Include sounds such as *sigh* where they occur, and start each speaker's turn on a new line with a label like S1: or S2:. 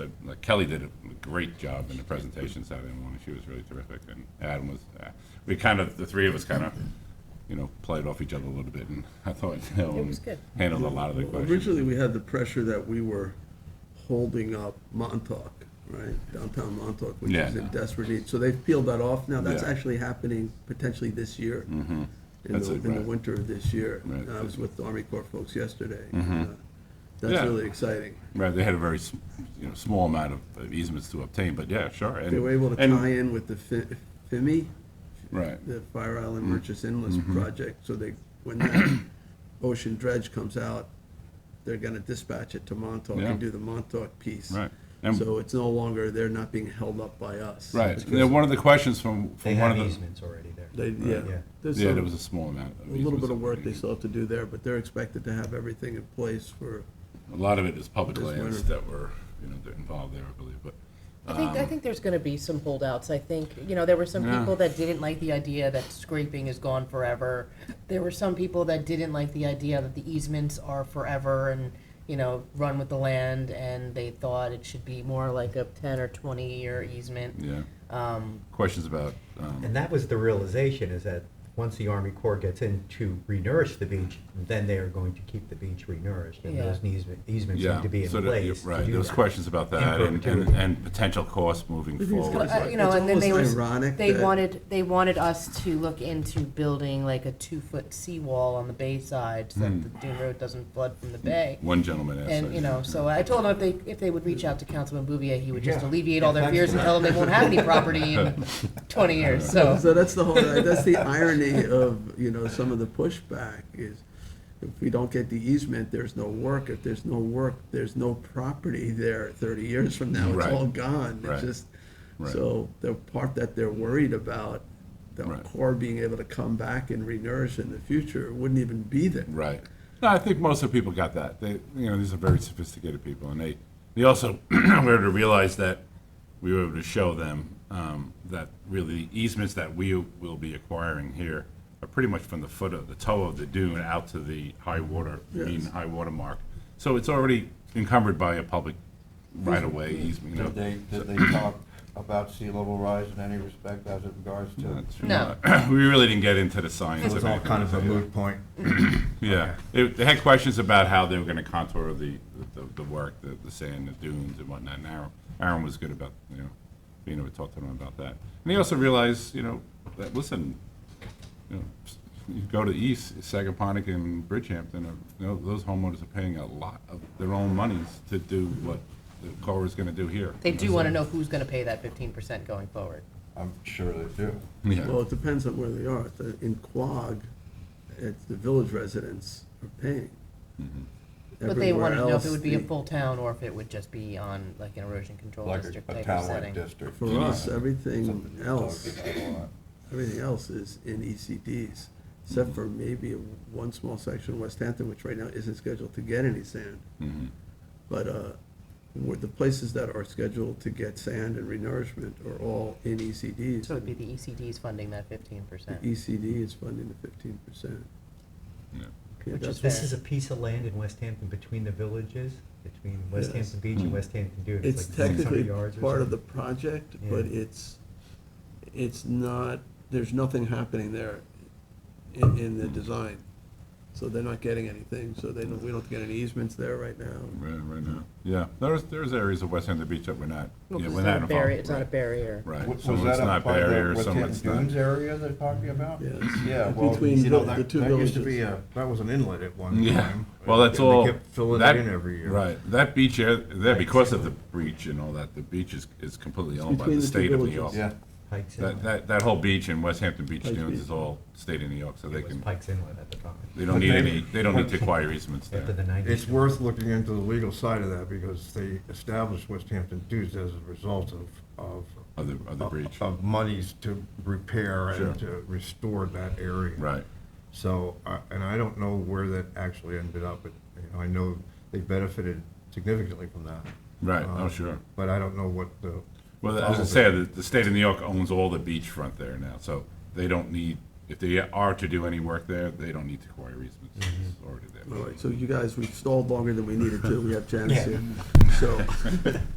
S1: uh, Kelly did a great job in the presentation Saturday morning. She was really terrific, and Adam was, uh, we kind of, the three of us kind of, you know, played off each other a little bit, and *laughs* I thought, you know,
S2: It was good.
S1: handled a lot of the questions.
S3: Originally, we had the pressure that we were holding up Montauk, right? Downtown Montauk, which is
S1: Yeah.
S3: in desperate need. So they've peeled that off now. That's
S1: Yeah. Mm-hmm.
S3: actually happening potentially this year. In
S1: That's
S3: the,
S1: it,
S3: in the
S1: right.
S3: winter of this year.
S1: Right. Mm-hmm.
S3: I was with the Army Corps folks yesterday. Uh, That's
S1: Yeah.
S3: really exciting.
S1: Right, they had a very, s- you know, small amount of- of easements to obtain, but yeah, sure. and-
S3: They were able to
S1: and-
S3: tie in with the Fi- FIMI,
S1: Right, Mm-hmm.
S3: the Fire Island Merchants Inlet project, so they, when that *coughs* ocean dredge comes out, they're gonna dispatch it to Montauk
S1: Yeah.
S3: and do the Montauk piece.
S1: Right. And-
S3: So it's no longer, they're not being held up by us.
S1: right. And then one of the questions from,
S4: They
S1: from one
S4: have
S1: of the,
S4: easements already there.
S3: They, yeah.
S4: Yeah.
S3: There's
S1: yeah, there
S3: some-
S1: was a small amount of
S3: a little
S1: easements
S3: bit of work they
S1: obtained.
S3: still have to do there, but they're expected to have everything in place for,
S1: A lot of it is public
S3: This
S1: lands
S3: winter.
S1: that were, you know, that involved there, I believe, but,
S2: I think,
S3: Um,
S2: I think there's gonna be some holdouts, I think, you know, there were some
S1: Yeah.
S2: people that didn't like the idea that scraping is gone forever. There were some people that didn't like the idea that the easements are forever and, you know, run with the land, and they thought it should be more like a ten or twenty-year easement.
S1: yeah.
S2: Um,
S1: Questions about, um,
S4: And that was the realization, is that once the Army Corps gets in to renourish the beach, then they are going to keep the beach renourished, and
S2: Yeah.
S4: those easement- easements
S1: Yeah,
S4: need to be in
S1: so that- yeah,
S4: place to
S1: Right,
S4: do
S1: there was
S4: that.
S1: questions about that and, and,
S4: perpetuity.
S1: and potential costs moving
S3: Maybe it's
S1: forward.
S3: got-
S2: uh,
S1: but-
S2: you know,
S3: It's
S2: and then they was,
S3: almost ironic
S2: they
S3: that-
S2: wanted, they wanted us to look into building like a two-foot seawall on the bay side so
S3: Hmm.
S2: that the Dune Road doesn't flood from the bay.
S1: One gentleman asked.
S2: And,
S1: that,
S2: you know, so I told him if they, if they would reach out to Councilman Bouvier, he would just
S4: Yeah.
S2: alleviate all their
S4: Thanks
S2: fears
S4: for
S2: and tell them they won't have any property in twenty years, so.
S3: so that's the
S1: *laughs*
S3: whole, that's the irony of, you know, some of the pushback is, if we don't get the easement, there's no work. If there's no work, there's no property there thirty years from now. It's
S1: Right.
S3: all gone.
S1: Right.
S3: It's just,
S1: Right.
S3: so the part that they're worried about, the
S1: Right.
S3: core being able to come back and renourish in the future, wouldn't even be there.
S1: Right. No, I think most of the people got that. They, you know, these are very sophisticated people, and they, they also *clears throat* were able to realize that we were able to show them um, that really the easements that we will be acquiring here are pretty much from the foot of the toe of the dune out to the high water mean
S3: Yes.
S1: high water mark. So it's already encumbered by a public right of way easement. You know,
S5: Did they,
S1: *clears throat*
S5: did they talk about sea level rise in any respect as it regards to?
S2: No.
S1: uh, *clears throat* we really didn't get into the science.
S4: It was all
S1: anything
S4: kind
S1: with
S4: of a
S1: it.
S4: moot point.
S1: Yeah, It- they had questions about how they were gonna contour the, the, the work, the, the sand, the dunes and whatnot, and Aaron, Aaron was good about, you know, being able to talk to them about that. And he also realized, you know, that, listen, you know, s- you go to the east, Sagaponic and Bridgehampton, are- you know, those homeowners are paying a lot of their own monies to do what the Corps is gonna do here.
S2: They do wanna know who's gonna pay that fifteen percent going forward.
S5: I'm sure they do.
S1: Yeah,
S3: Well, it depends on where they are. The- In Quogue, it's the village residents are paying.
S1: Mm-hmm.
S2: But they
S3: Everywhere
S2: wanted to know if it
S3: else,
S2: would be a
S3: the-
S2: full town or if it would just be on like an erosion control
S5: Like
S2: district
S5: a- a
S2: type of
S5: town like
S2: setting.
S5: district.
S3: For us,
S5: Something
S3: everything
S5: you talk
S3: else
S5: about a lot.
S3: Everything else is in ECDs, except for maybe one small section of West Hampton, which right now isn't scheduled to get any sand.
S1: Mm-hmm.
S3: But uh, where the places that are scheduled to get sand and renourishment are all in E ECDs.
S2: So it'd be the ECD's funding that fifteen percent.
S3: E ECD is funding the fifteen percent.
S1: Yeah.
S2: Which is
S4: This
S2: fair.
S4: is a piece of land in West Hampton between the villages, between West
S3: Yes.
S4: Hampton
S1: Hmm.
S4: Beach and West Hampton Dune.
S3: It's
S4: like 600
S3: technically
S4: yards or
S3: part of the
S4: something.
S3: project, but
S4: Yeah.
S3: it's, it's not, there's nothing happening there in, in the design. So they're not getting anything, so they don't, we don't get any easements there right now.
S1: right, right now, yeah, there's, there's areas of West Hampton Beach that we're not,
S2: Well,
S1: yeah,
S2: 'cause
S1: we're not
S2: it's not a
S1: involved.
S2: barrier, it's not a
S1: right,
S2: barrier.
S1: Right,
S5: Was
S1: some of
S5: that
S1: it's
S5: up
S1: not
S5: by
S1: barrier,
S5: the West
S1: some of
S5: Hampton
S1: it's not.
S5: Dunes area they're talking about?
S3: Yes.
S5: Yeah, well,
S3: Between
S5: you know,
S3: the-
S5: that,
S3: the two
S5: that used to be
S3: villages.
S5: a, that was an inlet at one
S1: Yeah,
S5: time.
S1: well, that's
S5: And they
S1: all.
S5: kept Filling
S1: that-
S5: it in every year.
S1: Right, that beach area, there, because of the breach and all that, the beach is, is completely owned by
S3: between
S1: the
S3: the two
S1: state of New York.
S3: villages.
S5: Yeah,
S4: Pikes
S1: That,
S4: Inlet.
S1: that, that whole beach in West Hampton Beach
S3: Pikes
S1: Dunes
S3: Peak.
S1: is all state of New York, so they
S4: It was
S1: can,
S4: Pikes Inlet at the time,
S1: they don't
S5: But
S1: need
S5: they-
S1: any, they don't need to acquire easements
S4: after the
S1: there.
S4: nineties.
S5: it's worth looking into the legal side of that because they established West Hampton Dunes as a result of, of.
S1: Of the-
S5: Oh,
S1: of the breach.
S5: Of monies to repair
S1: Sure.
S5: and to restore that area.
S1: Right,
S5: So, I- and I don't know where that actually ended up, but you know, I know they benefited significantly from that.
S1: right, oh,
S5: Um,
S1: sure.
S5: But I don't know what the.
S1: Well, as I was gonna say, the, the state of New York owns all the beachfront there now, so they don't need, if they are to do any work there, they don't need to acquire easements, it's already
S3: All
S1: there.
S4: *laughs*
S3: right, so you guys, we stalled longer than we needed to, we have Janice
S4: Yeah.
S3: here. So,